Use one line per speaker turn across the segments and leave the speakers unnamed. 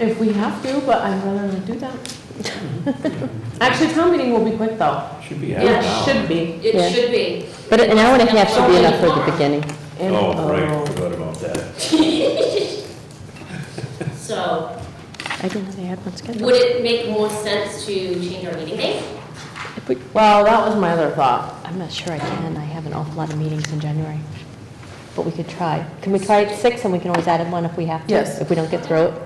If we have to, but I'd rather not do that. Actually, town meeting will be quick though.
Should be half
It
an hour.
should be.
Yeah.
It should be.
But an hour and a half should be enough for the beginning.
And,
Oh,
uh,
right, forgot about that.
So
I didn't know they had one scheduled.
would it make more sense to change our meeting date?
If we-
Well, that was my other thought.
I'm not sure I can, I have an awful lot of meetings in January, but we could try. Can we try at six, and we can always add in one if we have to?
Yes.
If we don't get through it?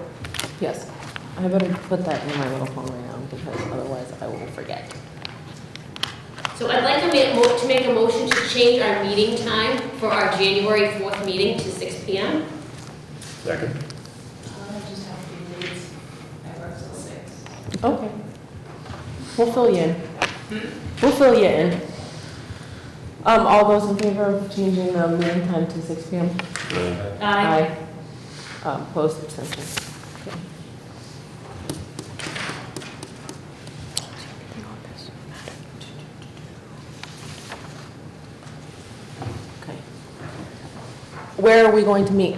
Yes. I better put that in my little phone right now because otherwise I will forget.
So I'd like to make, mo- to make a motion to change our meeting time for our January 4th meeting to 6 PM.
Second,
I just have to be late. I work till six.
Okay. We'll fill you in. We'll fill you in. Um, all those in favor of changing the meeting time to six P M?
uh,
Aye.
Um, Opposed, abstentions. Okay. Okay. Where are we going to meet?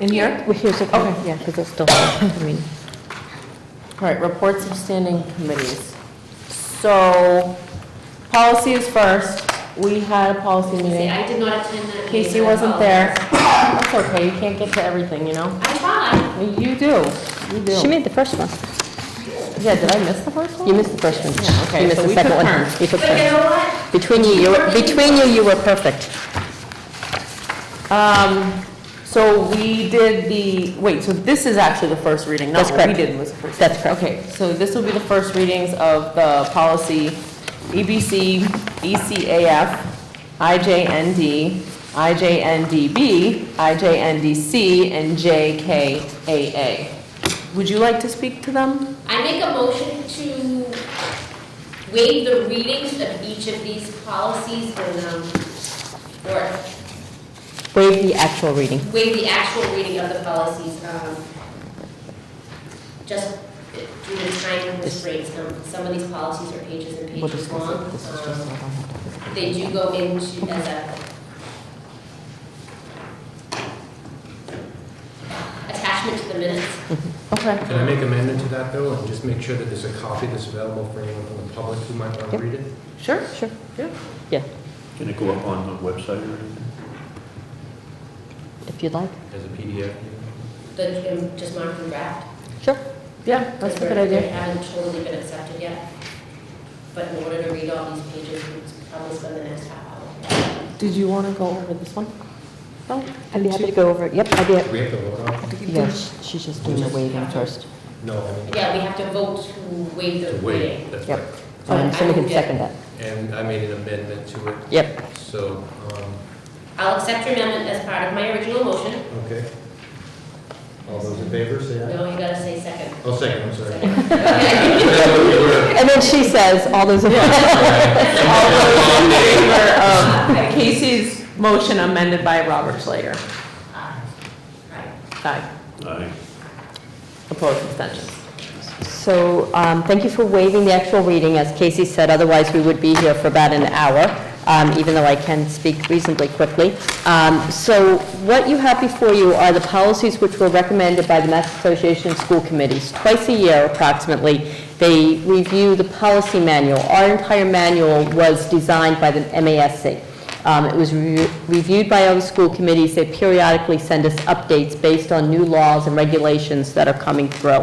In here?
Well, Here's, okay,
Okay.
yeah, because it's still, I mean,
All right, reports of standing committees. So, policies first. We had a policy
Say,
meeting.
I did not attend that meeting.
Casey
I
wasn't there.
apologize.
That's okay, you can't get to everything, you know?
I tried.
You do, you
she
do.
made the first one.
Yeah, did I miss the first one?
You missed the first one.
Yeah, okay,
You missed
so
the
we
second
took
one.
turns.
You took
But you
turns.
know what?
Between you, you were, between you, you were perfect.
Um, so we did the, wait, so this is actually the first reading, not
That's
what we
correct.
did was the first.
That's correct.
Okay, so this will be the first readings of the policy E EBC, ECAF, IJND, IJNDB, IJNDC, and JKAA. Would you like to speak to them?
I make a motion to waive the readings of each of these policies and, um, or
Waive the actual reading.
waive the actual reading of the policies, um, just due to time restraints, um, some of these policies are pages and
We'll
pages
discuss
long.
it. This is just-
um, They do go into, as a attachment to the minutes.
Mm-hmm. Okay.
Can I make amendment to that, though, and just make sure that there's a copy that's available for anyone from the public who might want to
Yep.
read it?
Sure, sure. Yeah.
Yeah,
can it go up on the website or anything?
if you'd like.
As a PDF?
The, um, just mark and draft.
Sure.
Yeah, that's a good
Because
idea.
They haven't totally been accepted yet, but in order to read all these pages, we'd probably spend the next half hour.
Did you want to go over this one? No?
I'd be happy to go over, it. yep, I'd be,
Do
hap-
we have to vote on? it?
yeah, she- she's just doing the waiving first.
No, I mean.
Yeah, we have to vote to waive the
To
reading.
wait, that's
Yep.
right.
Um, Somebody can second that.
And I made an amendment to it,
Yep,
so, um,
I'll accept your amendment as part of my original motion.
okay. All those in favor, say aye.
No, you gotta say second.
Oh, second, I'm sorry.
Second.
That's what we were-
and then she says, all those in
All those in favor of Casey's motion amended by Robert Slater?
Aye. Right.
Aye.
Aye.
Opposed, abstentions?
So, um, thank you for waiving the actual reading, as Casey said, otherwise we would be here for about an hour, um, even though I can speak reasonably quickly. Um, So what you have before you are the policies which were recommended by the Mass Association of School Committees. Twice a year approximately, they review the policy manual. Our entire manual was designed by the MASC. Um, It was re- reviewed by all the school committees. They periodically send us updates based on new laws and regulations that are coming through.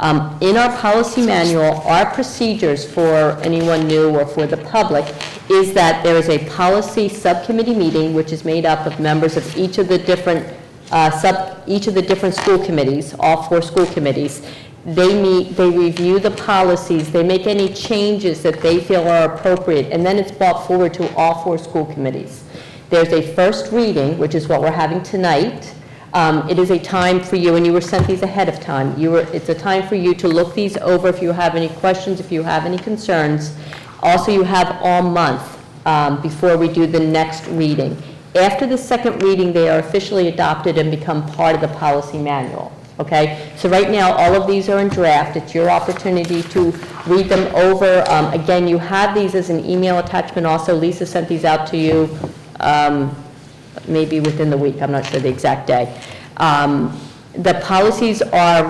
Um, In our policy manual, our procedures for anyone new or for the public is that there is a policy subcommittee meeting, which is made up of members of each of the different uh, sub, each of the different school committees, all four school committees. They meet, they review the policies, they make any changes that they feel are appropriate, and then it's brought forward to all four school committees. There's a first reading, which is what we're having tonight. Um, It is a time for you, and you were sent these ahead of time. You were, it's a time for you to look these over if you have any questions, if you have any concerns. Also, you have all month um, before we do the next reading. After the second reading, they are officially adopted and become part of the policy manual, okay? So right now, all of these are in draft, it's your opportunity to read them over. Um, Again, you have these as an email attachment also, Lisa sent these out to you um, maybe within the week, I'm not sure the exact day. Um, The policies are